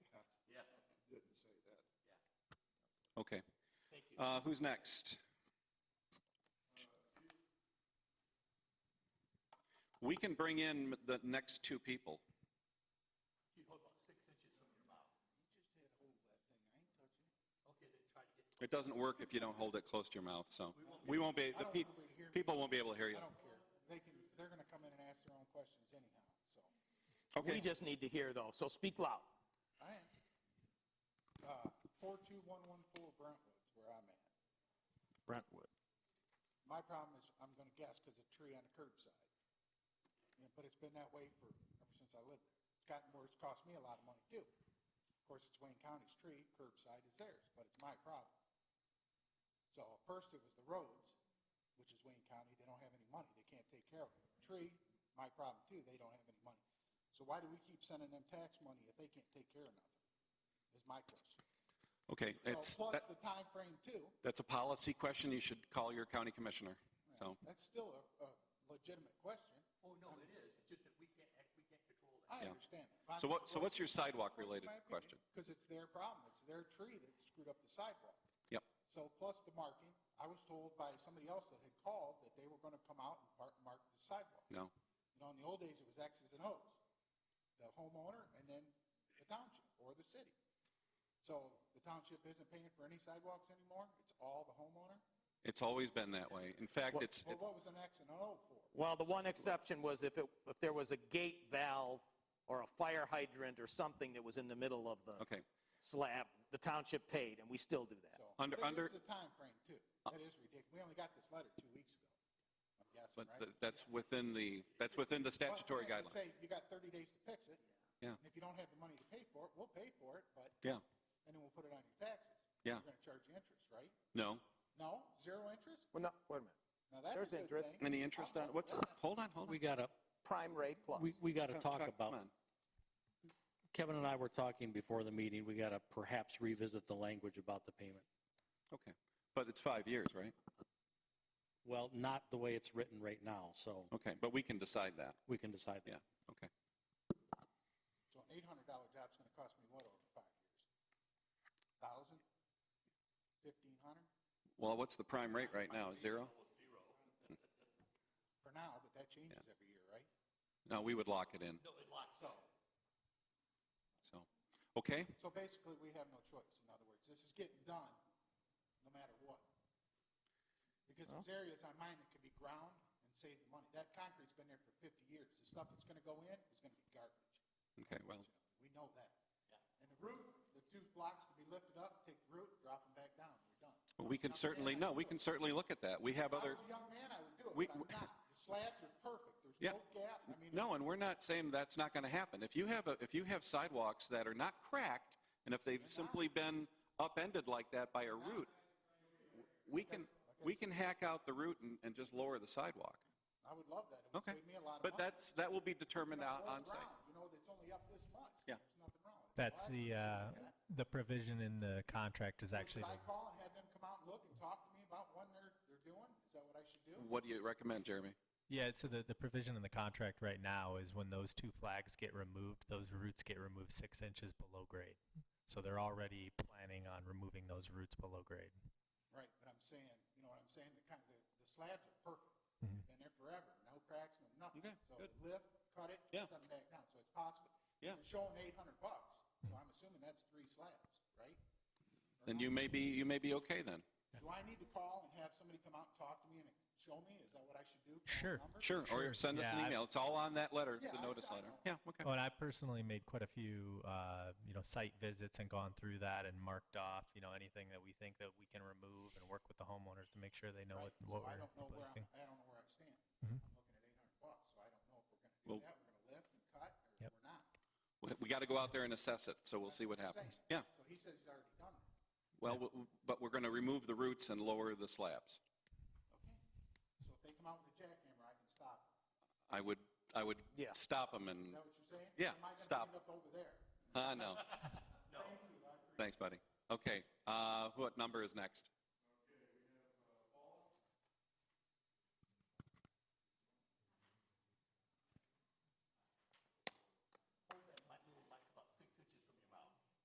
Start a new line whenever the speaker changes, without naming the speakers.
Okay. Thank you. Uh, who's next? We can bring in the next two people. It doesn't work if you don't hold it close to your mouth, so we won't be, the pe- people won't be able to hear you.
I don't care. They can, they're going to come in and ask their own questions anyhow, so.
Okay.
We just need to hear though, so speak loud.
I am. Uh, 42114 Brentwood's where I'm at.
Brentwood.
My problem is, I'm going to guess because a tree on the curbside. You know, But it's been that way for, ever since I lived there. It's gotten worse, cost me a lot of money too. Of course, it's Wayne County's tree, curbside is theirs, but it's my problem. So first it was the roads, which is Wayne County, they don't have any money, they can't take care of it. Tree, my problem too, they don't have any money. So why do we keep sending them tax money if they can't take care of nothing? Is my question.
Okay, it's,
So plus
that-
the time frame too.
that's a policy question. You should call your county commissioner. So,
That's still a, a legitimate question.
Oh, no, it is, it's just that we can't, act- we can't control that.
I
Yeah.
understand. that.
so what, so what's your sidewalk related question?
Because it's their problem. It's their tree that screwed up the sidewalk.
Yep.
So plus the marking, I was told by somebody else that had called that they were going to come out and park, mark the sidewalk.
No.
You know, in the old days, it was X's and O's. The homeowner and then the township or the city. So the township isn't paying for any sidewalks anymore. It's all the homeowner.
It's always been that way. In fact,
Well-
it's,
Well, what was an X and an O for?
Well, the one exception was if it, if there was a gate valve or a fire hydrant or something that was in the middle of the
okay.
slab, the township paid, and we still do that.
So,
Under-
but it
under-
is
Uh,
the timeframe too. That is ridiculous. We only got this letter two weeks ago. I'm guessing,
But
right?
th- that's within the, that's within the
Well,
statutory
yeah, they
guidelines.
Say you got 30 days to fix it.
Yeah.
And if you don't have the money to pay for it, we'll pay for it, but.
Yeah.
And then we'll put it on your taxes.
Yeah.
We're going to charge you interest, right?
No?
No, zero interest?
Well, no, wait a minute.
Now that's a
There's
good
interest.
thing.
Any interest on, what's, hold on, hold on.
We gotta,
Prime rate plus.
we, we gotta
Chuck,
talk
come
about,
on.
Kevin and I were talking before the meeting, we gotta perhaps revisit the language about the payment.
Okay. But it's five years, right?
Well, not the way it's written right now, so
Okay, but we can decide that.
we can decide
Yeah.
that.
Okay.
So an $800 job's going to cost me what over five years? Thousand? Fifteen hundred?
Well, what's the prime rate right now? Zero?
For now, but that changes every year, right?
No, we would lock it in.
So,
So, okay,
so basically we have no choice. In other words, this is getting done no matter what. Because there's areas on mine that could be ground and save the money. That concrete's been there for 50 years. The stuff that's going to go in is going to be garbage.
okay, well,
We know that. And the root, the two blocks can be lifted up, take the root, drop them back down, we're done.
well, we can
Now,
certainly,
man, I
no, we
do
can
it.
certainly look at that. We have other,
If I was a young man, I would do it,
We-
but I'm not. The slabs are perfect,
Yeah.
there's no gap, I mean.
no, and we're not saying that's not going to happen. If you have, a if you have sidewalks that are not cracked, and if they've simply been upended like that by a root, we can, we can hack out the root and, and just lower the sidewalk.
I would love that, it would
Okay.
save me a lot of money.
But that's, that will be determined
You know,
out
roll
on site.
around, You know, it's only up this much.
uh, Yeah.
There's nothing wrong with it.
That's
Why would
the
I
uh,
do that?
the provision in the contract is actually
Should I
the-
call and have them come out and look and talk to me about what they're, they're doing? Is that what I should do?
What do you recommend, Jeremy?
yeah. So the, the provision in the contract right now is when those two flags get removed, those roots get removed six inches below grade. So they're already planning on removing those roots below grade.
Right, but I'm saying, you know what I'm saying, the kind, the, the slabs are perfect.
Mhm.
Been there forever, no cracks, no nothing.
Okay,
So
good.
lift, cut it,
Yeah.
send it back down, so it's possible.
Yeah.
They're showing eight hundred bucks, so I'm assuming that's three slabs, right?
Then you may be, you may be okay then.
Do I need to call and have somebody come out and talk to me and show me? Is that what I should do? Call
Sure.
the number?
Sure, or
Sure.
send us an
Yeah, I-
email. It's all on that letter,
Yeah, I
the notice
saw
letter.
that.
Yeah, okay.
Oh, and I personally made quite a few uh, you know site visits and gone through that and marked off you know anything that we think that we can remove and work with the homeowners to make sure they know
Right,
what, what
so I
we're
don't know where I'm-
replacing.
I don't know where I stand. I'm
Mhm.
looking at eight hundred bucks, so I don't know if we're gonna do
Well-
that, we're gonna lift and cut, or
Yep.
we're not.
We- We got to go out there and assess it, so we'll see what
That's
happens.
I'm
Yeah,
saying. So he says he's already done it.
well, w- w- but we're going to remove the roots and lower the slabs.
Okay. So if they come out with a jackhammer, I can stop. it.
I would, I would
Yeah.
stop them and,
Is that what you're saying?
Yeah,
Am I gonna
stop.
end up over there?
ah, no. Thanks, buddy. Okay, uh, what number is next?